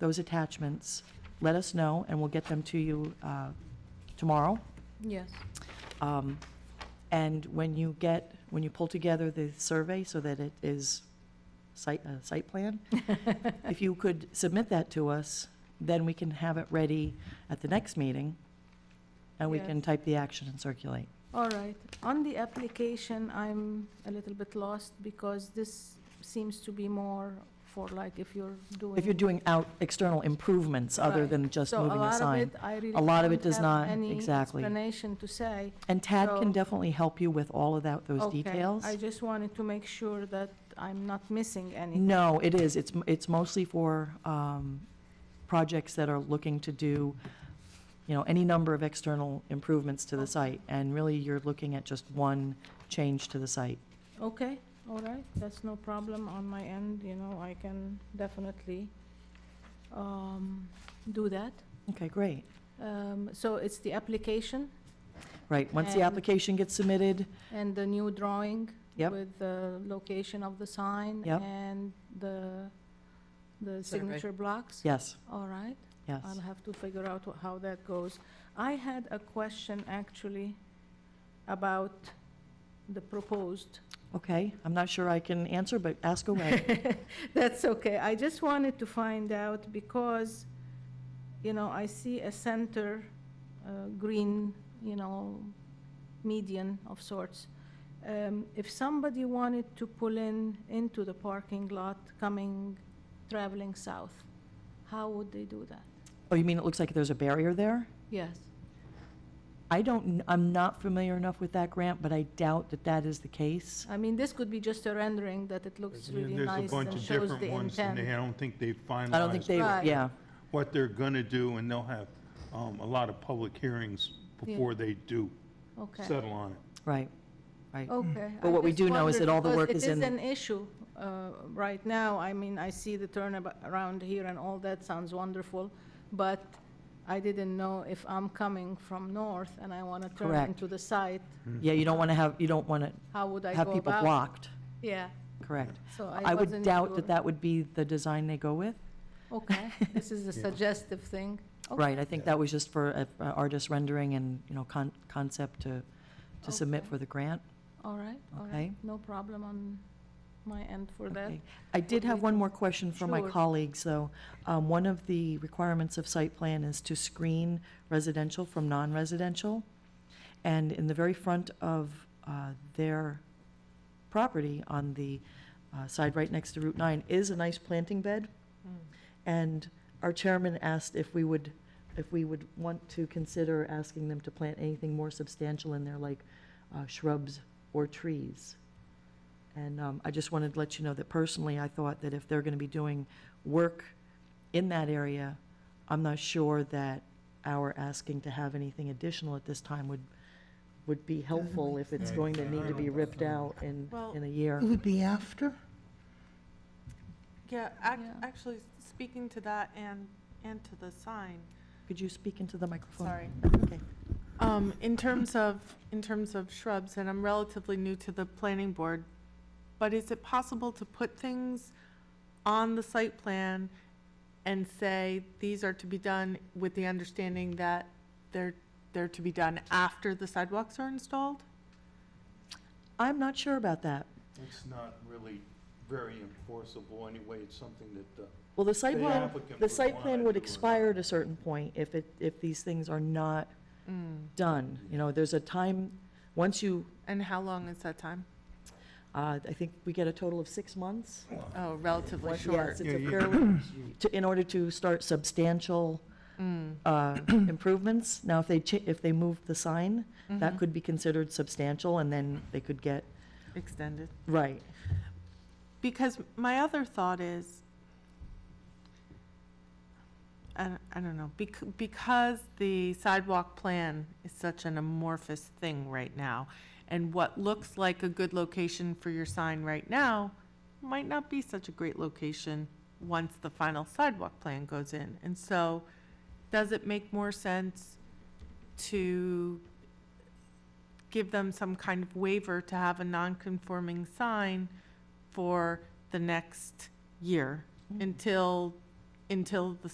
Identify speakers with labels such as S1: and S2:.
S1: those attachments, let us know, and we'll get them to you uh, tomorrow.
S2: Yes.
S1: Um, And when you get, when you pull together the survey so that it is site, a site plan, if you could submit that to us, then we can have it ready at the next meeting, and we can
S2: Yes.
S1: type the action and circulate.
S2: All right. On the application, I'm a little bit lost because this seems to be more for like if you're doing.
S1: If you're doing out external improvements other
S2: Right.
S1: than just
S2: So a
S1: moving a
S2: lot of
S1: sign.
S2: it, I really
S1: A lot of it
S2: don't
S1: does
S2: have
S1: not,
S2: any
S1: exactly.
S2: Explanation to say.
S1: And Tad can
S2: So-
S1: definitely help you with all of that, those
S2: Okay,
S1: details.
S2: I just wanted to make sure that I'm not missing any.
S1: No, it is. It's, m- it's mostly for um, projects that are looking to do, you know, any number of external improvements to the site. And really, you're looking at just one change to the site.
S2: Okay, all right, that's no problem on my end, you know, I can definitely um, do that.
S1: Okay, great.
S2: Um, So it's the application
S1: Right, once the
S2: And-
S1: application gets submitted,
S2: and the new drawing
S1: Yep.
S2: with the location of the sign
S1: Yep.
S2: and the, the
S3: Survey.
S2: signature blocks?
S1: yes,
S2: All right,
S1: yes.
S2: I'll have to figure out wh- how that goes. I had a question actually about the proposed
S1: Okay, I'm not sure I can answer, but ask away.
S2: That's okay. I just wanted to find out because, you know, I see a center, uh, green, you know, median of sorts. Um, If somebody wanted to pull in into the parking lot coming, traveling south, how would they do that?
S1: Oh, you mean it looks like there's a barrier there?
S2: Yes.
S1: I don't, kn- I'm not familiar enough with that grant, but I doubt that that is the case.
S2: I mean, this could be just a rendering that it looks really
S4: There's a
S2: nice
S4: bunch
S2: and
S4: of
S2: shows
S4: different
S2: the
S4: ones, and they,
S2: intent.
S4: I don't think they've
S1: I don't think they,
S4: finalized
S2: Right.
S1: yeah,
S4: what they're gonna do, and they'll have, um, a lot of public hearings before they do
S2: Okay,
S4: settle on it.
S1: right, right.
S2: okay.
S1: But
S2: I
S1: what we
S2: just
S1: do know is
S2: wondered
S1: that all the
S2: because
S1: work is in-
S2: It is an issue uh, right now. I mean, I see the turnaround here and all that sounds wonderful, but I didn't know if I'm coming from north and I want to turn
S1: Correct.
S2: into the site,
S1: Yeah, you don't want to have, you don't want to
S2: how would I go
S1: have
S2: about?
S1: people blocked,
S2: Yeah,
S1: correct.
S2: so I
S1: I would
S2: wasn't
S1: doubt
S2: sure.
S1: that that would be the design they go with.
S2: Okay, this is a suggestive thing. Okay.
S1: Right, I think that was just for uh, artist rendering and, you know, con- concept to, to submit
S2: Okay.
S1: for the grant.
S2: All right, all right.
S1: Okay.
S2: No problem on my end for that.
S1: Okay. I did have one more question for my
S2: Sure.
S1: colleagues, though. Um, One of the requirements of site plan is to screen residential from non-residential. And in the very front of uh, their property on the uh, side right next to Route 9 is a nice planting bed.
S2: Mm.
S1: And our chairman asked if we would, if we would want to consider asking them to plant anything more substantial in there, like uh, shrubs or trees. And um, I just wanted to let you know that personally, I thought that if they're going to be doing work in that area, I'm not sure that our asking to have anything additional at this time would, would be helpful if it's going to need to be ripped out in,
S3: Well-
S1: in a year.
S5: It would be after?
S3: Yeah, ac-
S2: Yeah.
S3: actually, speaking to that and, and to the sign,
S1: Could you speak into the microphone?
S3: sorry.
S1: Okay.
S3: Um, in terms of, in terms of shrubs, and I'm relatively new to the planning board, but is it possible to put things on the site plan and say, these are to be done with the understanding that they're, they're to be done after the sidewalks are installed?
S1: I'm not sure about that.
S4: It's not really very enforceable anyway, it's something that, uh,
S1: Well, the site
S4: The
S1: plan,
S4: applicant
S1: the
S4: would
S1: site
S4: want
S1: plan
S4: it
S1: would
S4: to-
S1: expire at a certain point if it, if these things are not done. You know, there's a time, once you,
S3: And how long is that time?
S1: uh, I think we get a total of six months.
S3: Oh, relatively
S1: Yes,
S3: short.
S1: it's a
S4: Yeah, you-
S1: fairly- to- In order to start substantial
S3: Mm.
S1: uh, improvements. Now, if they, cha- if they move the sign, that
S3: Mm-hmm.
S1: could be considered substantial, and then they could get,
S3: Extended.
S1: right.
S3: Because my other thought is, I, don't- I don't know, bec- because the sidewalk plan is such an amorphous thing right now, and what looks like a good location for your sign right now might not be such a great location once the final sidewalk plan goes in. And so, does it make more sense to give them some kind of waiver to have a non-conforming sign for the next year until, until the